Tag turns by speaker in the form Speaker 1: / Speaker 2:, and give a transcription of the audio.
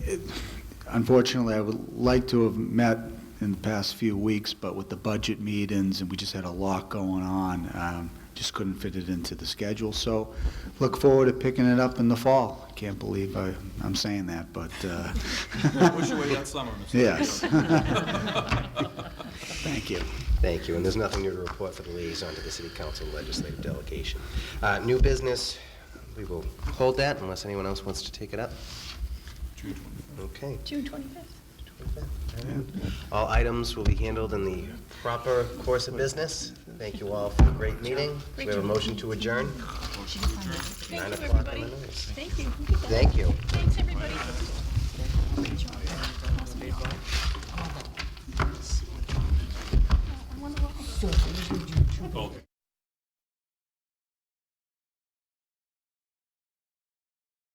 Speaker 1: Unfortunately, I would like to have met in the past few weeks, but with the budget meetings, and we just had a lot going on, um, just couldn't fit it into the schedule. So look forward to picking it up in the fall. Can't believe I- I'm saying that, but, uh,
Speaker 2: Wish away that summer, Mr.
Speaker 1: yes. Thank you.
Speaker 3: Thank you, and there's nothing new to report for the liaison to the city council legislative delegation. Uh, New business, we will hold that unless anyone else wants to take it up. Okay.
Speaker 4: June 25th.
Speaker 3: All items will be handled in the proper course of business. Thank you all for a great meeting. We have a motion to adjourn,
Speaker 4: Thank
Speaker 3: 9
Speaker 4: you,
Speaker 3: o'clock on
Speaker 4: everybody.
Speaker 3: the nose.
Speaker 4: Thank you. Look at that.
Speaker 3: Thank you.